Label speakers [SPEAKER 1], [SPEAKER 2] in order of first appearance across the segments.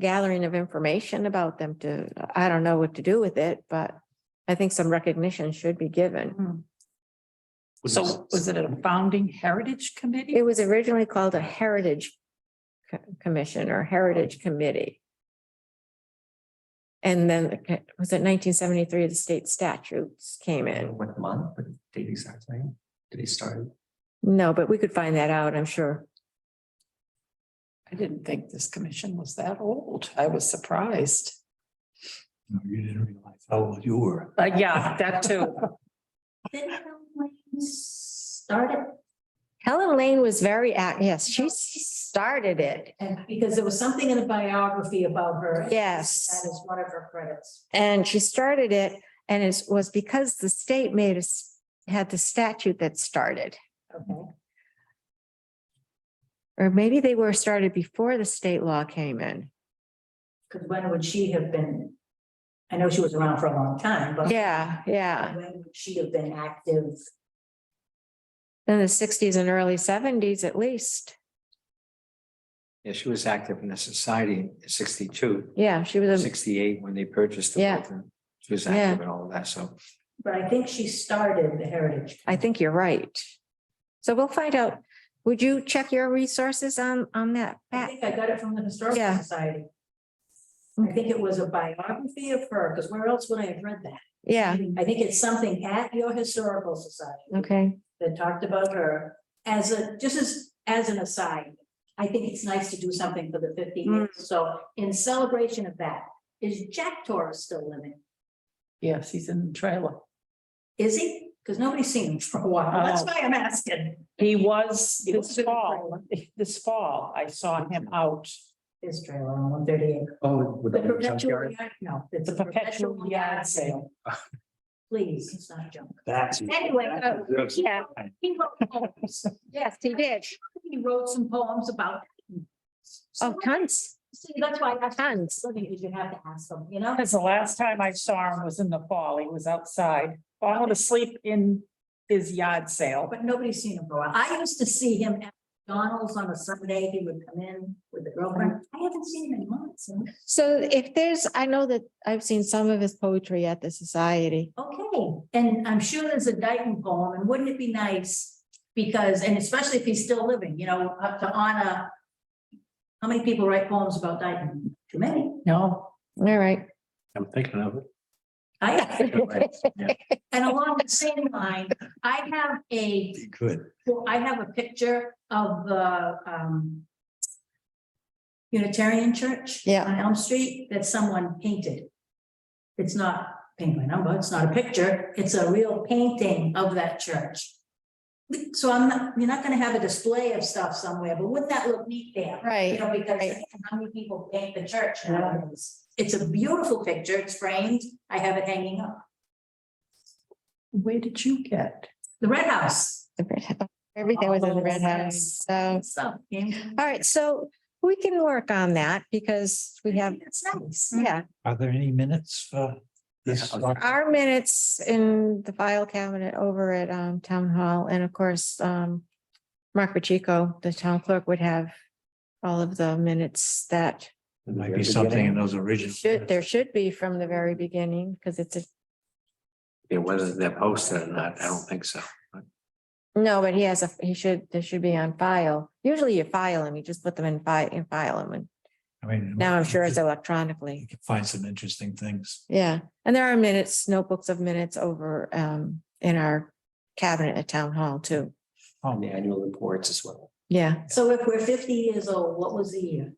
[SPEAKER 1] gathering of information about them to, I don't know what to do with it, but I think some recognition should be given.
[SPEAKER 2] So was it a founding heritage committee?
[SPEAKER 1] It was originally called a Heritage Co- Commission or Heritage Committee. And then uh, was it nineteen seventy-three, the state statutes came in?
[SPEAKER 3] What month, the date exactly, did he start?
[SPEAKER 1] No, but we could find that out, I'm sure.
[SPEAKER 2] I didn't think this commission was that old. I was surprised.
[SPEAKER 3] No, you didn't realize how old you were.
[SPEAKER 2] But Uh, yeah, that too.
[SPEAKER 4] Started
[SPEAKER 1] Helen Lane was very, act- yes, she started it.
[SPEAKER 4] and because there was something in a biography about her.
[SPEAKER 1] Yes.
[SPEAKER 4] That is one of her credits.
[SPEAKER 1] And she started it and it was because the state made us, had the statute that started.
[SPEAKER 4] Okay.
[SPEAKER 1] Or maybe they were started before the state law came in.
[SPEAKER 4] Because when would she have been? I know she was around for a long time, but.
[SPEAKER 1] Yeah, yeah.
[SPEAKER 4] When would she have been active?
[SPEAKER 1] In the sixties and early seventies at least.
[SPEAKER 3] Yeah, she was active in the society in sixty-two,
[SPEAKER 1] Yeah, she was, a
[SPEAKER 3] sixty-eight, when they purchased the
[SPEAKER 1] Yeah.
[SPEAKER 3] building. She was active in all of that, so.
[SPEAKER 4] But I think she started the Heritage.
[SPEAKER 1] I think you're right. So we'll find out. Would you check your resources on, on that?
[SPEAKER 4] I
[SPEAKER 1] Pat?
[SPEAKER 4] think I got it from the Historical
[SPEAKER 1] Yeah.
[SPEAKER 4] Society. I think it was a biography of her, because where else would I have read that?
[SPEAKER 1] Yeah,
[SPEAKER 4] I think it's something at your Historical Society.
[SPEAKER 1] okay.
[SPEAKER 4] that talked about her as a, just as, as an aside. I think it's nice to do something for the 50 years.
[SPEAKER 1] Mm.
[SPEAKER 4] So in celebration of that, is Jack Torres still living?
[SPEAKER 2] Yes, he's in the trailer.
[SPEAKER 4] Is he? Because nobody's seen him for a while. That's
[SPEAKER 2] Oh.
[SPEAKER 4] why I'm asking.
[SPEAKER 2] He was
[SPEAKER 4] He was
[SPEAKER 2] this
[SPEAKER 4] in the
[SPEAKER 2] fall, this fall, I saw him out.
[SPEAKER 4] His trailer on one thirty-eight.
[SPEAKER 3] Oh. with
[SPEAKER 4] The
[SPEAKER 3] the
[SPEAKER 4] perpetual
[SPEAKER 3] junkyard?
[SPEAKER 4] yard, no, it's
[SPEAKER 2] The perpetual yard sale.
[SPEAKER 4] Please, it's not junk.
[SPEAKER 3] That's.
[SPEAKER 4] Anyway, uh,
[SPEAKER 1] Yeah,
[SPEAKER 4] He wrote poems.
[SPEAKER 1] yes, he did.
[SPEAKER 4] He wrote some poems about.
[SPEAKER 1] Oh, tons,
[SPEAKER 4] See, that's why I asked,
[SPEAKER 1] tons.
[SPEAKER 4] something you should have to ask them, you know?
[SPEAKER 2] Because the last time I saw him was in the fall. He was outside, falling asleep in his yard sale.
[SPEAKER 4] but nobody's seen him for a while. I used to see him at McDonald's on a Sunday. He would come in with a girlfriend. I haven't seen him in months. and-
[SPEAKER 1] So if there's, I know that I've seen some of his poetry at the society.
[SPEAKER 4] Okay, and I'm sure there's a Dayton poem, and wouldn't it be nice? Because, and especially if he's still living, you know, up to honor. How many people write poems about Dayton? Too many.
[SPEAKER 2] No,
[SPEAKER 1] All right.
[SPEAKER 3] I'm thinking of
[SPEAKER 4] I,
[SPEAKER 3] it.
[SPEAKER 4] and along the same line, I have a
[SPEAKER 3] Good.
[SPEAKER 4] Well, I have a picture of the um. Unitarian Church.
[SPEAKER 1] Yeah.
[SPEAKER 4] On Elm Street that someone painted. It's not paint by number, it's not a picture, it's a real painting of that church. So I'm not, you're not gonna have a display of stuff somewhere, but wouldn't that look neat there? You
[SPEAKER 1] Right.
[SPEAKER 4] know, because
[SPEAKER 1] right.
[SPEAKER 4] how many people paint the church nowadays? It's a beautiful picture, it's framed, I have it hanging up.
[SPEAKER 2] where did you get?
[SPEAKER 4] The Red House.
[SPEAKER 1] The red house. Everything was in the red house, so.
[SPEAKER 4] So.
[SPEAKER 1] All right, so we can work on that because we have,
[SPEAKER 4] It's nice.
[SPEAKER 1] yeah,
[SPEAKER 3] Are there any minutes for
[SPEAKER 5] this?
[SPEAKER 1] our minutes in the file cabinet over at um town hall and of course um. Mark Pacheco, the town clerk would have all of the minutes that
[SPEAKER 5] There Might be something in those original.
[SPEAKER 1] should, there should be from the very beginning, because it's a,
[SPEAKER 3] Yeah, whether they're posted or not, I don't think so.
[SPEAKER 1] no, but he has a, he should, there should be on file. Usually you file them, you just put them in file, in file them, and
[SPEAKER 5] I mean.
[SPEAKER 1] now I'm sure it's
[SPEAKER 5] You
[SPEAKER 1] electronically.
[SPEAKER 5] can find some interesting things.
[SPEAKER 1] Yeah, and there are minutes, notebooks of minutes over um in our cabinet at town hall too.
[SPEAKER 5] Oh,
[SPEAKER 3] The annual reports as well.
[SPEAKER 1] Yeah,
[SPEAKER 4] So if we're fifty years old, what was the year?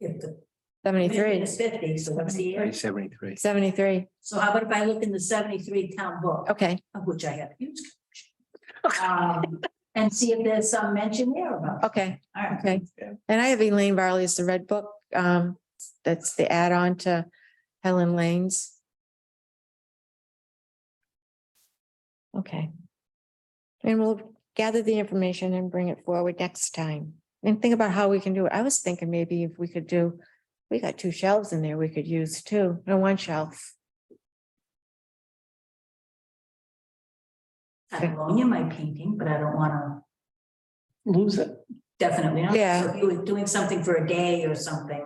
[SPEAKER 4] If the commission
[SPEAKER 1] seventy-three,
[SPEAKER 4] is Fifty, so what's the year?
[SPEAKER 3] Seventy-three.
[SPEAKER 1] seventy-three.
[SPEAKER 4] So how about if I look in the seventy-three town book,
[SPEAKER 1] Okay,
[SPEAKER 4] of which I have a huge. collection, um, And see if there's some mention there about.
[SPEAKER 1] okay,
[SPEAKER 4] All right.
[SPEAKER 1] okay. And I have Elaine Varley's The Red Book. Um, that's the add-on to Helen Lane's. Okay. And we'll gather the information and bring it forward next time and think about how we can do it. I was thinking maybe if we could do, we got two shelves in there we could use too, no, one shelf.
[SPEAKER 4] I loan you my painting, but I don't wanna
[SPEAKER 2] Lose it.
[SPEAKER 4] definitely not.
[SPEAKER 1] Yeah.
[SPEAKER 4] So if you were doing something for a day or something.